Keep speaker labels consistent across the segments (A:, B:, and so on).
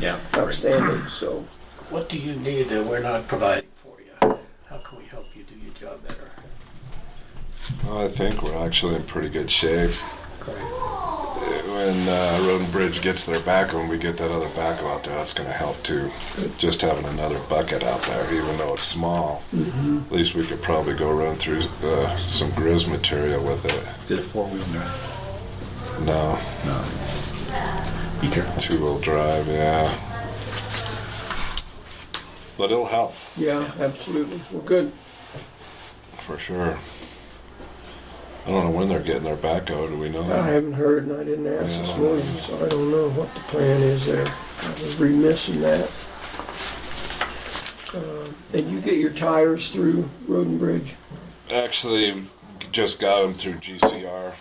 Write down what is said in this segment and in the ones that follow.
A: Yeah.
B: outstanding, so.
C: What do you need that we're not providing for you? How can we help you do your job better?
D: I think we're actually in pretty good shape.
C: Great.
D: When uh, Road and Bridge gets their backhoe and we get that other backhoe out there, that's going to help too. Just having another bucket out there, even though it's small,
A: Mm-hmm.
D: at least we could probably go run through uh, some grizz material with it.
A: Did a four-wheel drive.
D: No,
A: No. Be careful.
D: two wheel drive, yeah. But it'll help
B: Yeah, absolutely. Well, good.
D: for sure. I don't know when they're getting their backhoe. Do we know
A: Oh,
B: I
D: that?
B: haven't heard and I didn't ask this morning, so I don't know what the plan is there. I was remiss in that. Um, And you get your tires through Road and Bridge?
D: Actually, just got them through GCR,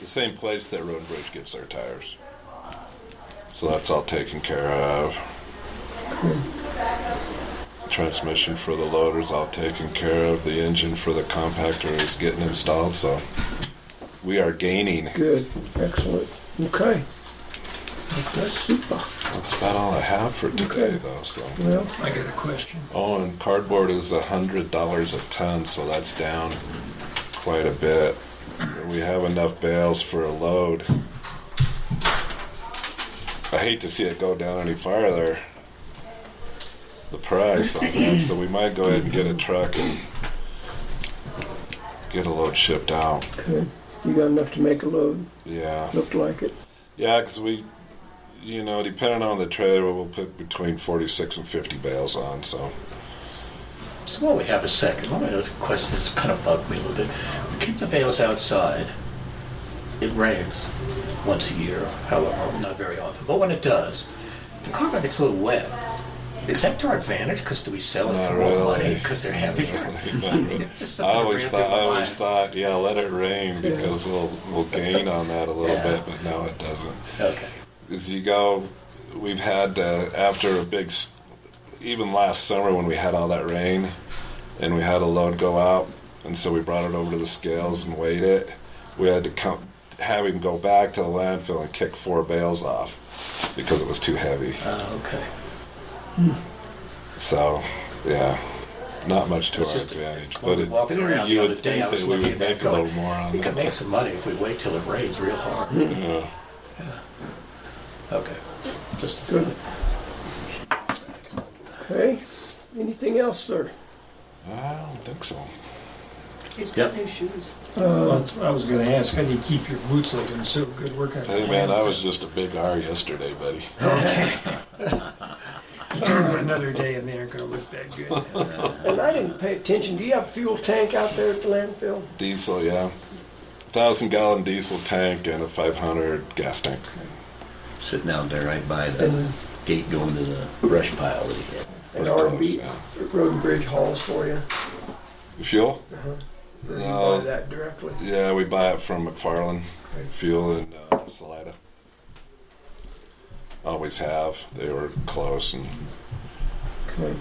D: the same place that Road and Bridge gets their tires. So that's all taken care of. Transmission for the loader's all taken care of. The engine for the compactor is getting installed, so we are gaining.
B: Good, excellent. Okay. That's super.
D: That's about all I have for today,
B: Okay.
D: though. So,
B: Well,
C: I got a question.
D: oh, and cardboard is a hundred dollars a ton, so that's down quite a bit. We have enough bales for a load. I hate to see it go down any farther. The price on that, so we might go ahead and get a truck and get a load shipped out.
B: okay. You got enough to make a load?
D: Yeah.
B: Looked like it.
D: Yeah, because we, you know, depending on the trailer, we'll put between 46 and 50 bales on. So,
C: So while we have a second, let me ask a question that's kind of bugged me a little bit. We keep the bales outside. It rains once a year, however, not very often. But when it does, the carpet gets a little wet. Is that to our advantage? Because do we sell it
D: Not
C: for more money?
D: really.
C: Because they're heavier? It's just
D: I
C: something that
D: always
C: ran
D: thought,
C: through my
D: I always
C: mind.
D: thought, yeah, let it rain because we'll we'll gain on that a little
C: Yeah.
D: bit, but no, it doesn't.
C: Okay.
D: As you go, we've had uh, after a big, s- even last summer when we had all that rain, and we had a load go out, and so we brought it over to the scales and weighed it. We had to come have him go back to the landfill and kick four bales off because it was too heavy.
C: Uh, okay.
D: So, yeah, not much to
C: It's
D: our
C: just-
D: advantage.
C: when
D: But
C: we
D: it,
C: walked around the
D: you
C: other
D: would
C: day,
D: think
C: I was
D: that we
C: looking
D: would
C: at that
D: make a little
C: going,
D: more on
C: We
D: that.
C: could make some money if we wait till it rains real hard.
D: Yeah.
C: Okay. Just a thought.
B: Okay. Anything else, sir?
D: I don't think so.
E: He's got
A: Yep.
E: new shoes.
F: Well, that's what I was gonna ask, how do you keep your boots looking so good working?
D: Hey man, I was just a big R yesterday, buddy.
F: Another day and they aren't gonna look that good.
B: And I didn't pay attention. Do you have a fuel tank out there at the landfill?
D: Diesel, yeah. Thousand gallon diesel tank and a 500 gas tank.
A: Sitting out there right by the gate going to the brush pile that he had.
B: And
D: Pretty close,
B: R&B,
D: yeah.
B: Road and Bridge hauls for you?
D: Fuel?
B: Or you
D: No.
B: buy that directly?
D: Yeah, we buy it from McFarland
B: Okay.
D: Fuel in uh, Salida. Always have. They were close, and
B: Okay.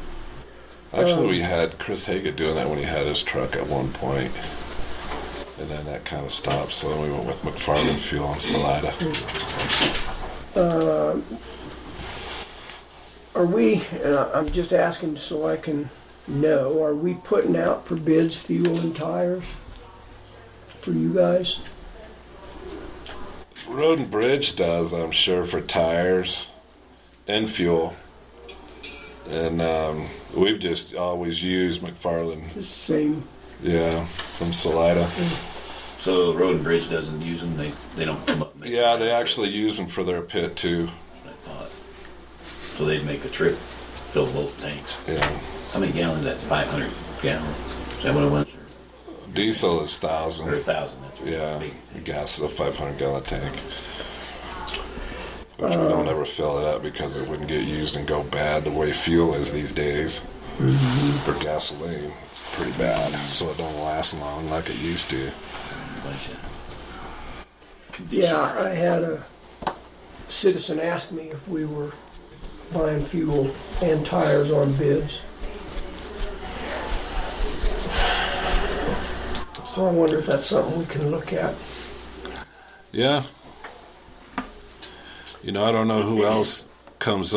D: actually,
B: Um,
D: we had Chris Haga doing that when he had his truck at one point, and then that kind of stopped. So then we went with McFarland Fuel in Salida.
B: Are we, and I- I'm just asking so I can know, are we putting out for bids fuel and tires for you guys?
D: Road and Bridge does, I'm sure, for tires and fuel. And um, we've just always used McFarland,
B: It's the same,
D: yeah, from Salida.
A: So Road and Bridge doesn't use them. They they don't come up. And make-
D: Yeah, they actually use them for their pit too.
A: I thought. So they'd make a trip, fill both tanks.
D: Yeah,
A: How many gallons? That's 500 gallons. Is that what it was?
D: diesel is
A: Or, or
D: thousand.
A: 1,000? That's really
D: Yeah,
A: big.
D: gas is a 500 gallon tank. Which we don't ever fill it up because it wouldn't get used and go bad the way fuel is these days. For gasoline, pretty bad. So it don't last long like it used to.
A: Bunch of
B: yeah, I had a citizen ask me if we were buying fuel and tires on bids. So I wonder if that's something we can look at.
D: Yeah. You know, I don't know who else comes up.